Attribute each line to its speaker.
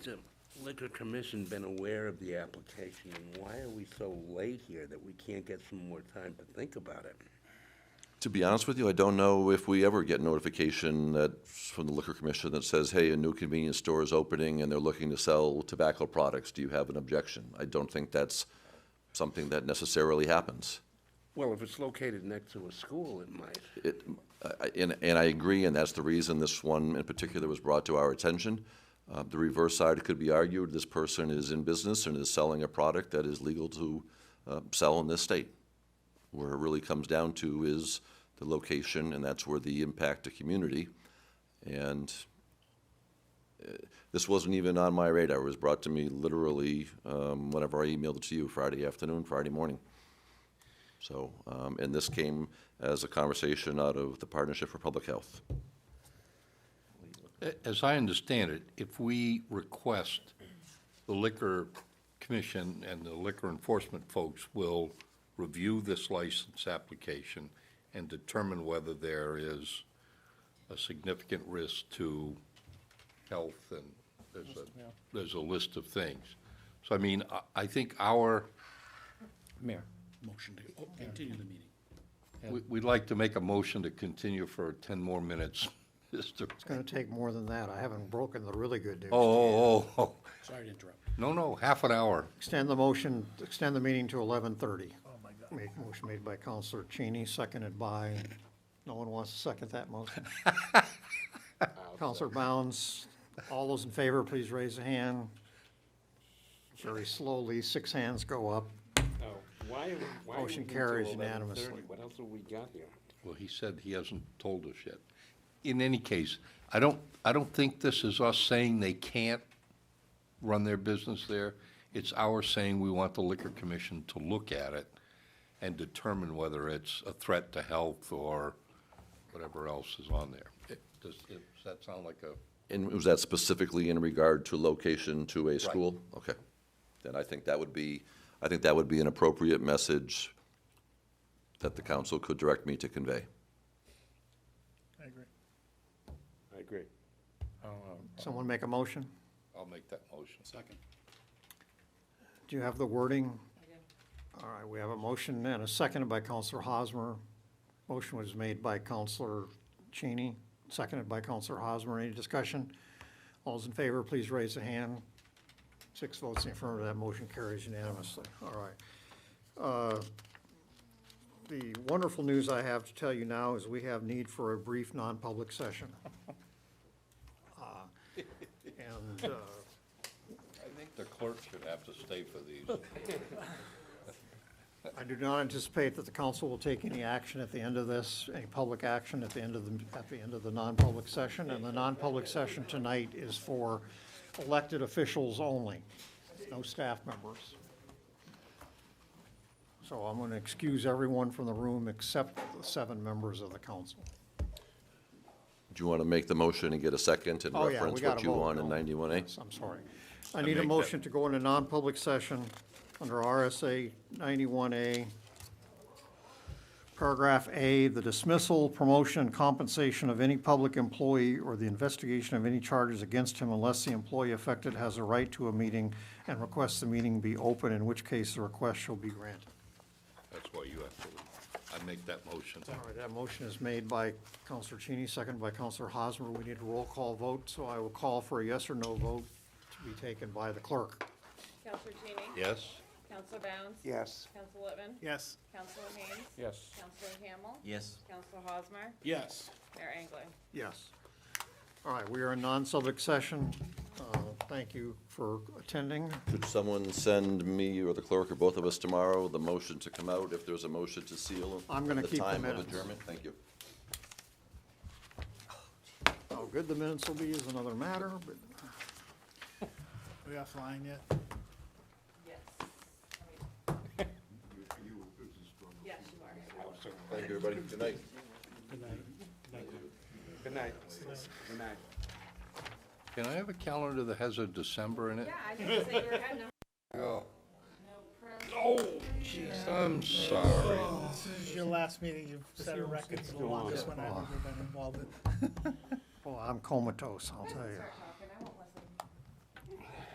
Speaker 1: the liquor commission been aware of the application, and why are we so late here that we can't get some more time to think about it?
Speaker 2: To be honest with you, I don't know if we ever get notification that, from the Liquor Commission that says, hey, a new convenience store is opening and they're looking to sell tobacco products. Do you have an objection? I don't think that's something that necessarily happens.
Speaker 1: Well, if it's located next to a school, it might.
Speaker 2: It, I- I- and, and I agree, and that's the reason this one in particular was brought to our attention. Uh, the reverse side could be argued, this person is in business and is selling a product that is legal to, uh, sell in this state. Where it really comes down to is the location, and that's where the impact to community. And uh, this wasn't even on my radar, it was brought to me literally, um, whenever I emailed it to you Friday afternoon, Friday morning. So, um, and this came as a conversation out of the Partnership for Public Health.
Speaker 3: A- As I understand it, if we request, the Liquor Commission and the liquor enforcement folks will review this license application and determine whether there is a significant risk to health and there's a, there's a list of things. So I mean, I, I think our,
Speaker 4: Mayor,
Speaker 5: Motion to continue the meeting.
Speaker 3: we- we'd like to make a motion to continue for ten more minutes, Mr.
Speaker 4: it's gonna take more than that. I haven't broken the really good news.
Speaker 3: Oh, oh, oh, oh,
Speaker 5: Sorry to interrupt.
Speaker 3: no, no, half an hour.
Speaker 4: Extend the motion, extend the meeting to eleven thirty. Oh, my God. motion made by Counselor Cheney, seconded by, no one wants to second that motion. Counselor Bounds, all those in favor, please raise a hand. Very slowly, six hands go up.
Speaker 1: Oh, Why, why?
Speaker 4: Motion wait until carries 11:30? unanimously.
Speaker 1: What else have we got here?
Speaker 3: Well, he said he hasn't told us yet. In any case, I don't, I don't think this is us saying they can't run their business there. It's our saying we want the liquor commission to look at it and determine whether it's a threat to health or whatever else is on there. It- Does, does that sound like a?
Speaker 2: And was that specifically in regard to location to a school? Okay. Then I think that would be, I think that would be an appropriate message that the council could direct me to convey.
Speaker 5: I agree.
Speaker 1: I agree.
Speaker 4: Someone make a motion?
Speaker 3: I'll make that motion.
Speaker 5: Second.
Speaker 4: Do you have the wording? All right, we have a motion and a seconded by Counselor Hosmer. Motion was made by Counselor Cheney, seconded by Counselor Hosmer. Any discussion? All those in favor, please raise a hand. Six votes in affirmative, that motion carries unanimously. All right. Uh, The wonderful news I have to tell you now is we have need for a brief non-public session. Uh, And uh,
Speaker 3: I think the clerk should have to stay for these.
Speaker 4: I do not anticipate that the council will take any action at the end of this, any public action at the end of the, at the end of the non-public session. And the non-public session tonight is for elected officials only, no staff members. So I'm going to excuse everyone from the room except the seven members of the council.
Speaker 2: Do you want to make the motion and get a second and
Speaker 4: Oh, yeah, we
Speaker 2: reference
Speaker 4: gotta
Speaker 2: what you
Speaker 4: vote,
Speaker 2: want in
Speaker 4: no.
Speaker 2: ninety-one A?
Speaker 4: Yes, I'm sorry. I need
Speaker 3: make
Speaker 4: a
Speaker 3: that-
Speaker 4: motion to go into non-public session under RSA 91A, paragraph A, the dismissal, promotion, and compensation of any public employee or the investigation of any charges against him unless the employee affected has a right to a meeting and requests the meeting be open, in which case the request shall be granted.
Speaker 3: That's why you have to, leave. I make that motion.
Speaker 4: All right, that motion is made by Counselor Cheney, seconded by Counselor Hosmer. We need a roll call vote, so I will call for a yes or no vote to be taken by the clerk.
Speaker 6: Counselor Cheney?
Speaker 3: Yes?
Speaker 6: Counselor Bounce?
Speaker 1: Yes.
Speaker 6: Counselor Littman?
Speaker 5: Yes.
Speaker 6: Counselor Haynes?
Speaker 1: Yes.
Speaker 6: Counselor Hamel?
Speaker 7: Yes.
Speaker 6: Counselor Hosmer?
Speaker 5: Yes.
Speaker 6: Mayor Angling?
Speaker 4: Yes. All right, we are in non-subject session. Uh, Thank you for attending.
Speaker 2: Could someone send me or the clerk or both of us tomorrow the motion to come out if there's a motion to seal?
Speaker 4: I'm gonna
Speaker 2: and
Speaker 4: keep the
Speaker 2: time of
Speaker 4: minutes.
Speaker 2: adjournment? Thank you.
Speaker 4: How Oh, good the minutes will be is another matter, but
Speaker 5: Are we offline yet?
Speaker 6: Yes. Yes, you are.
Speaker 2: Thank you, everybody. Good night.
Speaker 5: Good night.
Speaker 1: Good night. Good night.
Speaker 3: Can I have a calendar that has a December in it?
Speaker 6: Yeah, I didn't say you were heading
Speaker 3: Oh. jeez, I'm sorry.
Speaker 8: This is your last meeting, you've set a record for the longest one I've ever been involved in.
Speaker 4: well, I'm comatose, I'll tell you.